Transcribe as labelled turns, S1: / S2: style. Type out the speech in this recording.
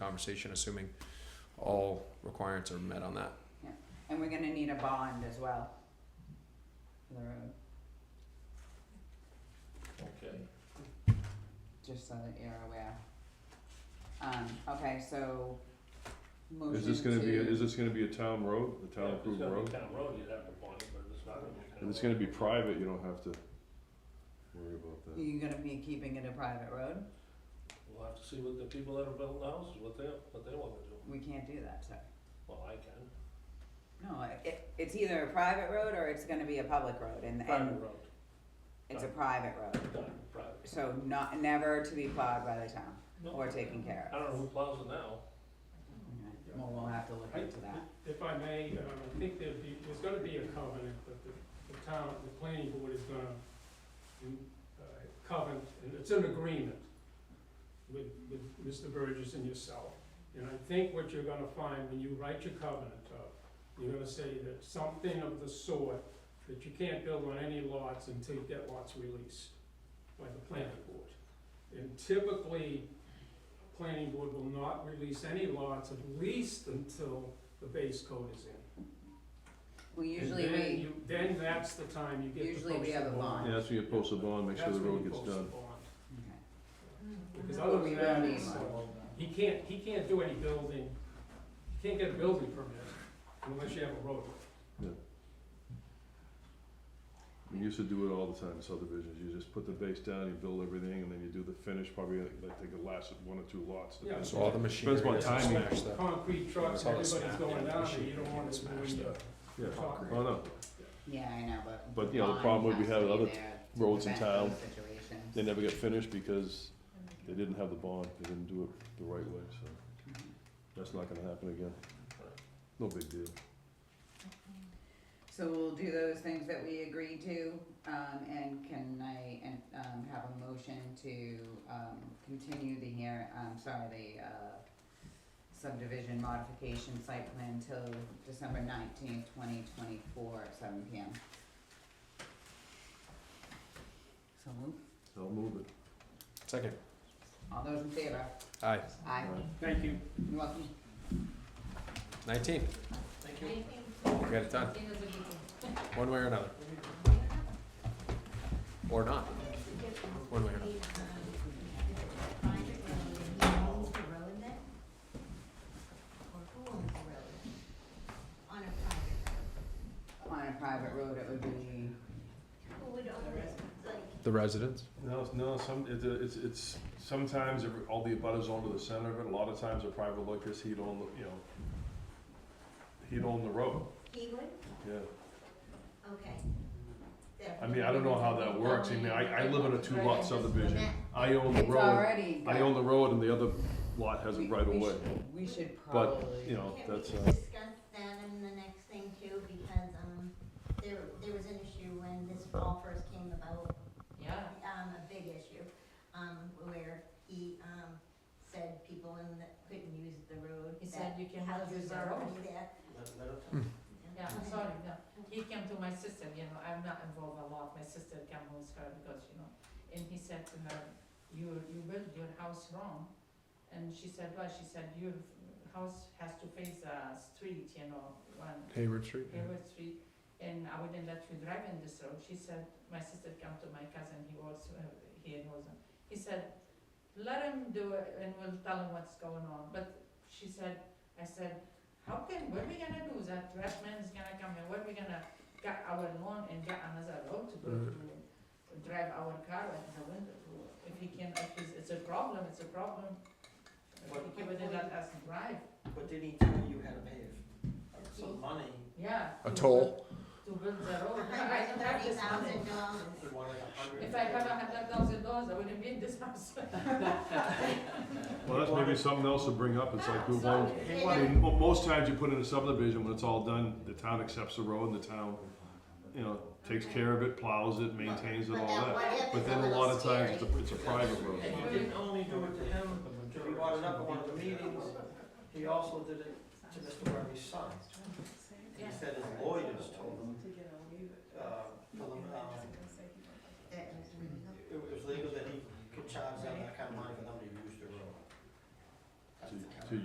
S1: conversation, assuming all requirements are met on that.
S2: And we're gonna need a bond as well. For the road,
S3: Okay.
S2: just so that you're aware. Um, okay, so, motion to.
S4: Is this gonna be, is this gonna be a town road, a town
S3: Yeah,
S4: approved
S3: If
S4: road?
S3: it's gonna be town road, you'd have to bond it, but if it's not gonna be town road.
S4: If it's gonna be private, you don't have to worry about that.
S2: You're gonna be keeping it a private road?
S3: We'll have to see what the people that are building houses, what they, what they wanna do.
S2: We can't do that, sir.
S3: Well, I can,
S2: No, it, it's either a private road or it's gonna be a public road and,
S3: private
S2: and
S3: road,
S2: it's a private road.
S3: done, private.
S2: So not, never to be plowed by the town
S3: No,
S2: or taken care
S3: I
S2: of.
S3: don't know who plows it now.
S2: Okay, Well, we'll have to look into that.
S5: If I may, um, I think there'd be, there's gonna be a covenant, but the, the town, the planning board is gonna mm, uh, covenant, and it's an agreement with, with Mr. Burgess and yourself. And I think what you're gonna find when you write your covenant up, you're gonna say that something of the sort, that you can't build on any lots until you get lots released by the planning board. And typically, planning board will not release any lots at least until the base code is in.
S2: Well, usually
S5: And then
S2: we,
S5: you, then that's the time you get to post the
S2: Usually we have a bond.
S4: Yeah, that's when you post a bond, make sure the
S5: That's when
S4: road
S5: you
S4: gets
S5: post the
S4: done.
S5: bond.
S2: okay.
S5: Because
S2: But
S5: other
S2: we
S5: than
S2: don't
S5: that,
S2: need
S5: it's,
S2: one.
S5: uh, he can't, he can't do any building, he can't get a building permit unless you have a road.
S4: We used to do it all the time in subdivisions, you just put the base down, you build everything, and then you do the finish, probably like like they could last one or two lots.
S5: Yeah.
S4: depends.
S1: So all the machinery
S4: Depends what
S1: doesn't
S4: timing.
S1: smash the.
S5: Concrete trucks,
S1: It's all the
S5: everybody's
S1: snap
S5: going
S1: and
S5: down,
S1: shit
S5: and you don't
S1: that
S5: want
S1: gets
S5: it
S1: smashed
S5: doing your
S1: up.
S4: Yeah,
S5: concrete.
S4: oh no,
S2: Yeah, I know, but.
S4: But, you know, the problem would be
S2: having
S4: having other roads in town. they never get finished because they didn't have the bond, they didn't do it the right way, so that's not gonna happen again. No big deal.
S2: So we'll do those things that we agreed to, um, and can I, and, um, have a motion to, um, continue the hear, I'm sorry, the, uh, subdivision modification site plan till December nineteenth, twenty twenty-four at seven P M. So moved.
S4: I'll move it.
S1: Second,
S2: all those in favor?
S1: aye,
S2: Aye,
S5: Thank you.
S2: you're welcome.
S1: nineteenth,
S3: Thank you.
S1: we got it done, one way or another. Or not, one way or another.
S6: On a private
S2: On a private road, it would be,
S6: road. Who would own this, like,
S1: The residents?
S4: No, it's- no, some, it's, a- it's, it's, sometimes every- all the abutters own to the center of it, a lot of times a private locus, he'd own, the you know, he'd own the road,
S6: he would?
S4: yeah.
S6: Okay.
S4: I mean, I don't know how that works, I mean, I, I live in a two lot subdivision, I own the
S2: it's
S4: road,
S2: already.
S4: I own the road and the other lot has
S2: We-
S4: it right
S2: we
S4: away,
S2: should- We should
S4: But,
S2: probably.
S4: you know,
S6: Can we
S4: that's,
S6: just
S4: uh,
S6: discuss that in the next thing too, because, um, there, there was an issue when this all first came about. Yeah. Um, a big issue, um, where he, um, said people in the, couldn't use the road. He said you can use the road.
S3: Let- let it-
S6: Yeah, I'm sorry, no, he came to my sister, you know, I'm not involved a lot, my sister came home scared because, you know, and he said to her, you, you built your house wrong, and she said, why, she said, your house has to face a street, you know, one,
S1: Hayward Street?
S6: Hayward Street, and I wouldn't let you drive in this road, she said, my sister came to my cousin, he was, uh, he in Rosen, he said, let him do it and we'll tell him what's going on, but she said, I said, how can, what are we gonna do, that trash man is gonna come here, what are we gonna, get our lawn and get another road to go
S1: Mhm.
S6: to, drive our car and the window, to- if he can, if it's, it's a problem, it's a problem. If he wouldn't let us drive,
S7: But did he tell you how to pay some money?
S6: yeah.
S1: A
S6: to
S1: toll.
S6: build- To build the road, I don't have this money.
S7: He wanted a hundred.
S6: If I had a hundred thousand dollars, I wouldn't be in this house.
S4: well, that's maybe something else to bring up, it's
S2: Ah,
S4: like, who owns,
S7: He
S4: I
S7: wanted,
S4: mean, mo- most times you put in a subdivision, when it's all done, the town accepts the road and the town, you know, takes care of it, plows it, maintains it, all that. But then a lot of times, it's a, it's a private road.
S7: and you didn't only do it to him, he brought it up at one of the meetings, he also did it to Mr. Murphy's son. He said his lawyers told him, uh, told
S6: mm-hmm.
S7: him, um, it was legal that he could charge them that kind of money for them